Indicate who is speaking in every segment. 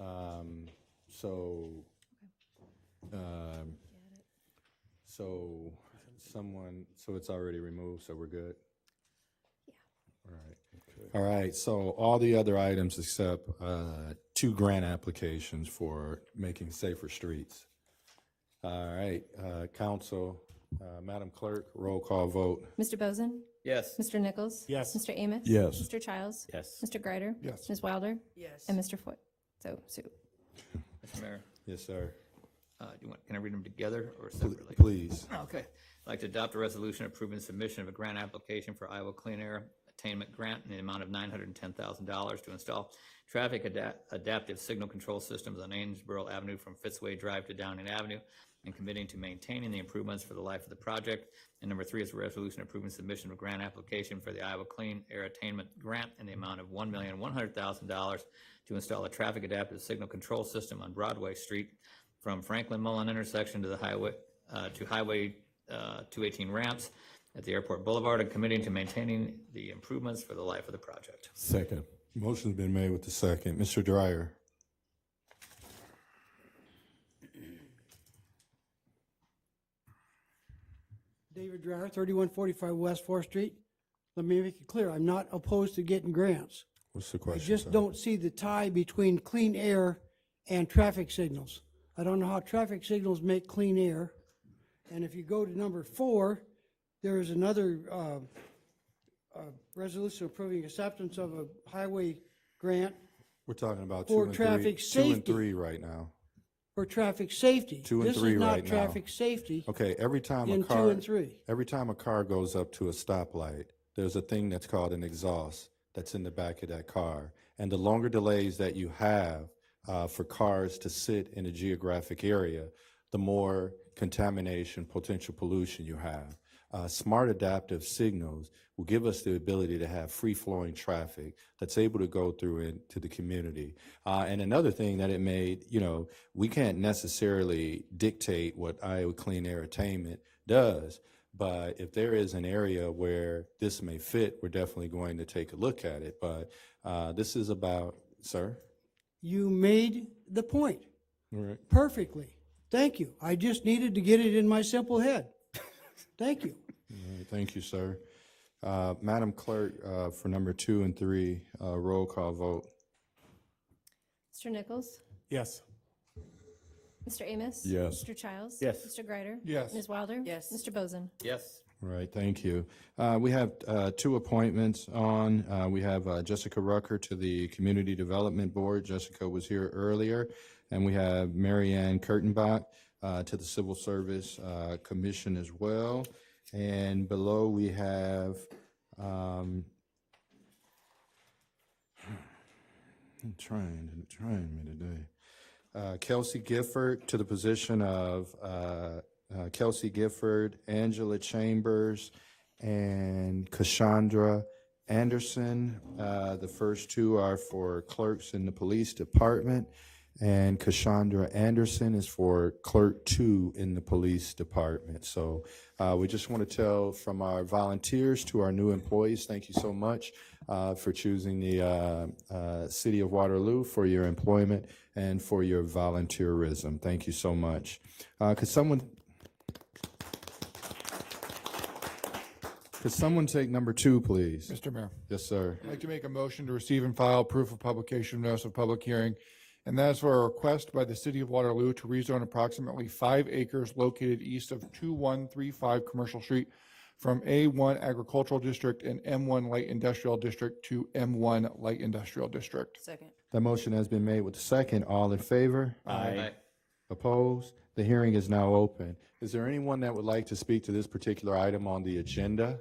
Speaker 1: Um, so, um,
Speaker 2: Got it.
Speaker 1: so someone, so it's already removed, so we're good?
Speaker 2: Yeah.
Speaker 1: All right. All right, so all the other items except, uh, two grant applications for making safer streets. All right, uh, council, uh, Madam Clerk, roll call vote.
Speaker 2: Mr. Bozen?
Speaker 3: Yes.
Speaker 2: Mr. Nichols?
Speaker 4: Yes.
Speaker 2: Mr. Amos?
Speaker 1: Yes.
Speaker 2: Mr. Childs?
Speaker 3: Yes.
Speaker 2: Mr. Greider?
Speaker 1: Yes.
Speaker 2: Ms. Wilder?
Speaker 5: Yes.
Speaker 2: And Mr. Foot. So, so,
Speaker 3: Mr. Mayor,
Speaker 1: Yes, sir.
Speaker 3: uh, do you want, can I read them together or
Speaker 1: Pl-
Speaker 3: separately?
Speaker 1: Please.
Speaker 3: Okay. I'd like to adopt a resolution approving submission of a grant application for Iowa Clean Air Attainment Grant in the amount of nine hundred and ten thousand dollars to install traffic ada- adaptive signal control systems on Amesboro Avenue from Fitzway Drive to Downing Avenue and committing to maintaining the improvements for the life of the project. And number three is a resolution approving submission of grant application for the Iowa Clean Air Attainment Grant in the amount of one million, one hundred thousand dollars to install a traffic adaptive signal control system on Broadway Street from Franklin Mullen intersection to the highway, uh, to Highway uh, 218 ramps at the Airport Boulevard and committing to maintaining the improvements for the life of the project.
Speaker 1: Second. Motion's been made with the second. Mr. Dryer?
Speaker 6: David Dryer, thirty-one forty-five West Fourth Street. Let me make it clear, I'm not opposed to getting grants.
Speaker 1: What's the
Speaker 6: I
Speaker 1: question?
Speaker 6: just
Speaker 1: sir?
Speaker 6: don't see the tie between clean air and traffic signals. I don't know how traffic signals make clean air. And if you go to number four, there is another, uh, uh, resolution approving acceptance of a highway grant
Speaker 1: We're talking about two
Speaker 6: For
Speaker 1: and three,
Speaker 6: traffic
Speaker 1: two and
Speaker 6: safety.
Speaker 1: three right now.
Speaker 6: for traffic safety.
Speaker 1: Two and three right
Speaker 6: This
Speaker 1: now.
Speaker 6: is not traffic safety
Speaker 1: Okay, every time a
Speaker 6: in
Speaker 1: car,
Speaker 6: two and three.
Speaker 1: every time a car goes up to a stoplight, there's a thing that's called an exhaust that's in the back of that car. And the longer delays that you have uh, for cars to sit in a geographic area, the more contamination, potential pollution you have. Uh, smart adaptive signals will give us the ability to have free flowing traffic that's able to go through into the community. Uh, and another thing that it made, you know, we can't necessarily dictate what Iowa Clean Air Attainment does, but if there is an area where this may fit, we're definitely going to take a look at it. But uh, this is about, sir?
Speaker 6: You made the point.
Speaker 1: All right.
Speaker 6: perfectly. Thank you. I just needed to get it in my simple head. Thank you.
Speaker 1: All right, Thank you, sir. Uh, Madam Clerk, uh, for number two and three, uh, roll call vote.
Speaker 2: Mr. Nichols?
Speaker 4: Yes.
Speaker 2: Mr. Amos?
Speaker 1: Yes.
Speaker 2: Mr. Childs?
Speaker 4: Yes.
Speaker 2: Mr. Greider?
Speaker 1: Yes.
Speaker 2: Ms. Wilder?
Speaker 5: Yes.
Speaker 2: Mr. Bozen?
Speaker 3: Yes.
Speaker 1: All Right, thank you. Uh, We have uh, two appointments on. Uh, We have uh, Jessica Rucker to the Community Development Board. Jessica was here earlier. And we have Mary Ann Kurtenbach uh, to the Civil Service uh, Commission as well. And below, we have, um, I'm trying, I'm trying me today. Uh, Kelsey Gifford to the position of uh, uh, Kelsey Gifford, Angela Chambers, and Cassandra Anderson. Uh, The first two are for clerks in the police department, and Cassandra Anderson is for clerk two in the police department. So uh, we just want to tell from our volunteers to our new employees, thank you so much uh, for choosing the uh, uh, City of Waterloo for your employment and for your volunteerism. Thank you so much. Uh, Could someone Could someone take number two, please?
Speaker 7: Mr. Mayor,
Speaker 1: Yes, sir.
Speaker 7: I'd like to make a motion to receive and file proof of publication of notice of public hearing. And that is for a request by the city of Waterloo to rezone approximately five acres located east of 2135 Commercial Street from A1 Agricultural District and M1 Light Industrial District to M1 Light Industrial District.
Speaker 5: Second.
Speaker 1: That motion has been made with the second. All in favor?
Speaker 3: Aye.
Speaker 1: Opposed? The hearing is now open. Is there anyone that would like to speak to this particular item on the agenda?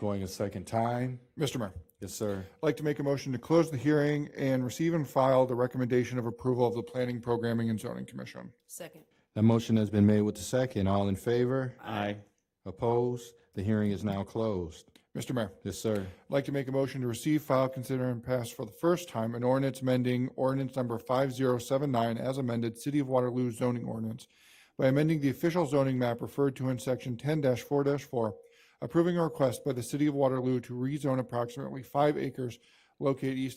Speaker 1: Going a second time?
Speaker 7: Mr. Mayor,
Speaker 1: Yes, sir.
Speaker 7: I'd like to make a motion to close the hearing and receive and file the recommendation of approval of the Planning, Programming, and Zoning Commission.
Speaker 5: Second.
Speaker 1: That motion has been made with the second. All in favor?
Speaker 3: Aye.
Speaker 1: Opposed? The hearing is now closed.
Speaker 7: Mr. Mayor,
Speaker 1: Yes, sir.
Speaker 7: I'd like to make a motion to receive, file, consider, and pass for the first time an ordinance amending ordinance number 5079 as amended City of Waterloo zoning ordinance by amending the official zoning map referred to in section 10-4-4, approving a request by the City of Waterloo to rezone approximately five acres located east of